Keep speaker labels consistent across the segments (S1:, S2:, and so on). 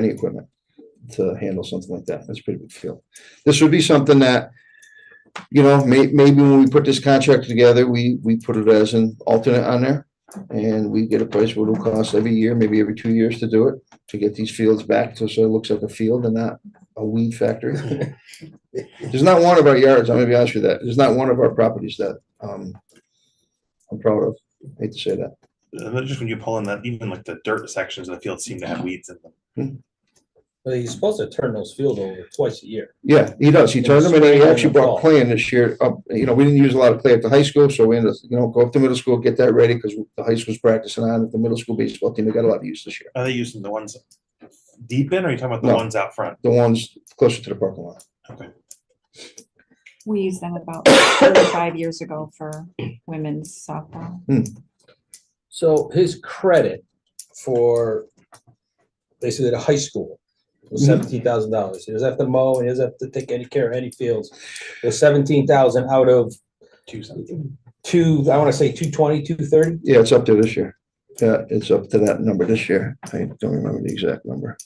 S1: any equipment to handle something like that. That's a pretty big field. This would be something that, you know, may, maybe when we put this contract together, we, we put it as an alternate on there. And we get a price what it'll cost every year, maybe every two years to do it, to get these fields back to, so it looks like a field and not a weed factory. There's not one of our yards, I'm gonna be honest with you, that, there's not one of our properties that, um, I'm proud of. Hate to say that.
S2: And then just when you pull in that, even like the dirt sections of the field seem to have weeds in them.
S3: Well, he's supposed to turn those field over twice a year.
S1: Yeah, he does. He
S3: Yeah,
S1: turned them and he
S3: spring and
S1: actually
S3: the
S1: brought
S3: fall.
S1: clay in this year. Up, you know, we didn't use a lot of clay at the high school, so we ended, up, you know, go up to middle school, get that ready because the high school's practicing on it. The middle school baseball team, they got a lot of use this year.
S2: Are they using the ones deep in or are you talking about the
S1: No.
S2: ones out front?
S1: The ones closer to the parking lot.
S4: We used them about thirty-five years ago for women's softball.
S3: So his credit for basically the high school was
S1: Mhm.
S3: seventeen thousand dollars. He doesn't have to mow, he doesn't have to take any care of any fields. It was seventeen thousand out of
S2: Two cents.
S3: two, I wanna say two twenty, two thirty.
S1: Yeah, it's up there this year. Yeah, it's up to that number this year. I don't remember the exact number.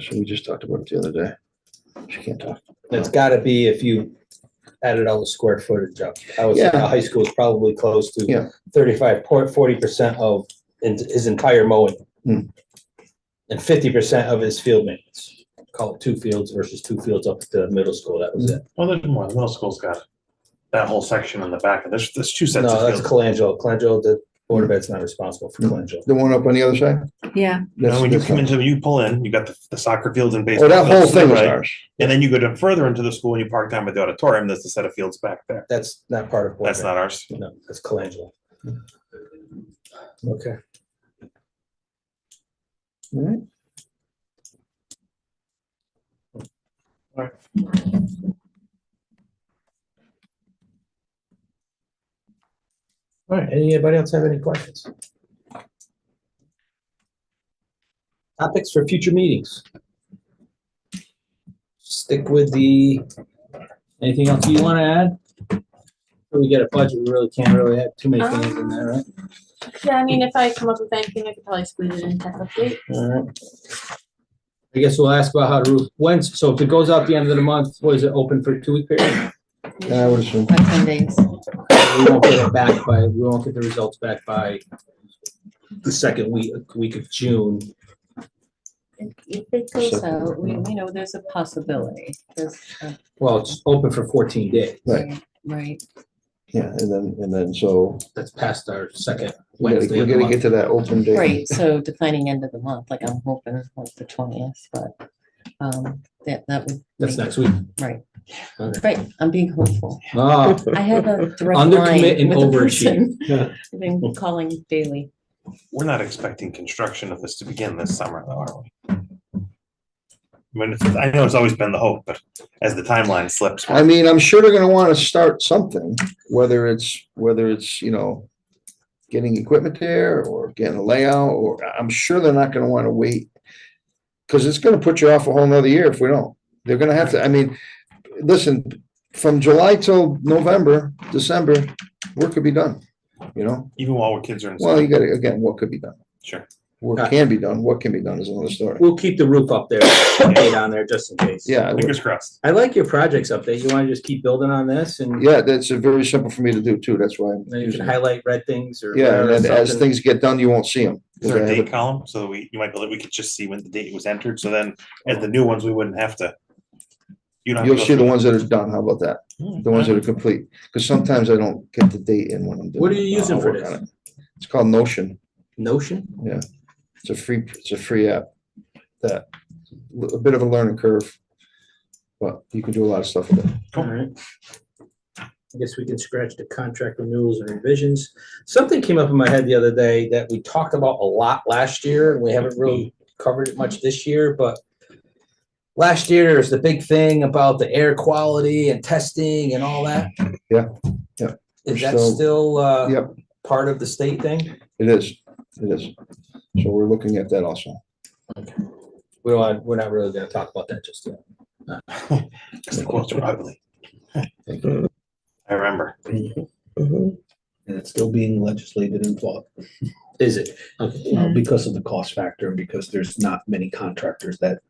S1: So we just talked about it the other day. She can't talk.
S3: It's gotta be if you added all the square footage up. I was, the
S1: Yeah.
S3: high school is probably close
S1: Yeah.
S3: to thirty-five, forty percent of in- his entire mowing.
S1: Hmm.
S3: And fifty percent of his field maintenance. Call it two fields versus two fields up to middle school. That
S1: Hmm.
S3: was it.
S2: Well, there's more. The middle school's got that whole section in the back. and There's, there's two sets
S3: No,
S2: of
S3: that's
S2: fields.
S3: Colangelo. Colangelo, the Board of Ed's not responsible for
S1: Hmm.
S3: Colangelo.
S1: The one up on the other side?
S4: Yeah,
S2: Now,
S1: That's-
S2: when you
S1: that's
S2: come
S1: not-
S2: into, you pull in, you got the, the soccer fields and
S1: Oh,
S2: baseball.
S1: that whole
S2: fields to the
S1: thing was
S2: right,
S1: ours.
S2: And then you go down further into the school and you park down by the auditorium. There's a set of fields back there.
S3: That's not part of. Board
S2: That's
S3: of Ed.
S2: not ours.
S3: No, that's Colangelo. Okay.
S1: All right.
S3: All right, anybody else have any questions? Topics for future meetings? Stick with the, anything else you want to add? When We get a budget, we really can't really have too many things in there, right?
S5: Yeah, I mean, if I come up with anything, I could probably squeeze it in tech update.
S3: All right. I guess we'll ask about how to, roof- when's, so if it goes out the end of the month, what is it, open for two week period?
S1: I would assume.
S6: About ten days.
S3: We won't get it back by, we won't get the results back by the second week, week of June.
S6: If it goes
S1: Second.
S6: out, we, we know there's a possibility, there's, a-
S3: Well, it's open for fourteen days.
S1: Right.
S6: right,
S1: Yeah, and then, and then so
S3: That's past our second
S1: we gotta-
S3: Wednesday
S1: we
S3: of the
S1: gotta get
S3: month.
S1: to that open date.
S6: right, so defining end of the month, like I'm hoping like the twentieth, but, um, that, that would.
S3: That's
S6: make it-
S3: next week.
S6: Right,
S3: Okay.
S6: right, I'm being hopeful.
S3: Ah,
S6: I have a direct
S3: Undercommit
S6: line
S3: and
S6: with the person.
S3: overachieve.
S6: I've been calling daily.
S2: We're not expecting construction of this to begin this summer, though, are we? I mean, it's- I know it's always been the hope, but as the timeline slips,
S1: I mean, I'm sure they're gonna wanna start something, whether it's, whether it's, you know, getting equipment there or getting a layout, or I- I'm sure they're not gonna wanna wait. Cause it's gonna put you off a whole nother year if we don't. They're gonna have to, I mean, listen, from July till November, December, work could be done, you know?
S2: even while our kids are in.
S1: Well,
S2: school.
S1: you gotta, again, what could be done?
S2: Sure.
S1: What can be done, what can be done is another story.
S3: we'll keep the roof up there, paid on there just in case.
S1: Yeah, I would-
S2: Fingers crossed.
S3: I like your projects update. You want to just keep building on this and
S1: yeah, that's a very simple for me to do too, that's why. I'm
S3: then you
S1: using
S3: can
S1: it.
S3: highlight red things or.
S1: Yeah,
S3: whatever,
S1: and then as
S3: something.
S1: things get done, you won't see them.
S2: Is there a date column so that we, you might be able, we could just see when the date was entered, so then as the new ones, we wouldn't have to. you don't have to
S1: You'll
S2: go
S1: see the
S2: through
S1: ones that are done, how about that?
S2: Hmm.
S1: The ones that are complete, because sometimes I don't get the date in when I'm doing.
S3: What are
S1: it.
S3: you
S1: I'll-
S3: using
S1: I'll
S3: for
S1: work on
S3: this?
S1: it. It's called Notion,
S3: Notion?
S1: it's a free, it's a free app that, a bit of a learning curve. But you can do a lot of stuff with it.
S2: Cool.
S3: All right. I guess we can scratch the contract renewals and revisions. Something came up in my head the other day that we talked about a lot last year and we haven't really covered it much this year, but last year there's the big thing about the air quality and testing and all that.
S1: Yeah, yeah.
S3: Is that
S1: Still-
S3: still, uh,
S1: Yep.
S3: part of the state thing?
S1: It is, it is. So we're looking at that also.
S3: We don't, want- we're not really gonna talk about that just yet.
S2: Because the quotes were ugly. I remember.
S7: And it's still being legislated and fought
S3: Is it?
S7: uh, because of the cost factor and because there's not many contractors that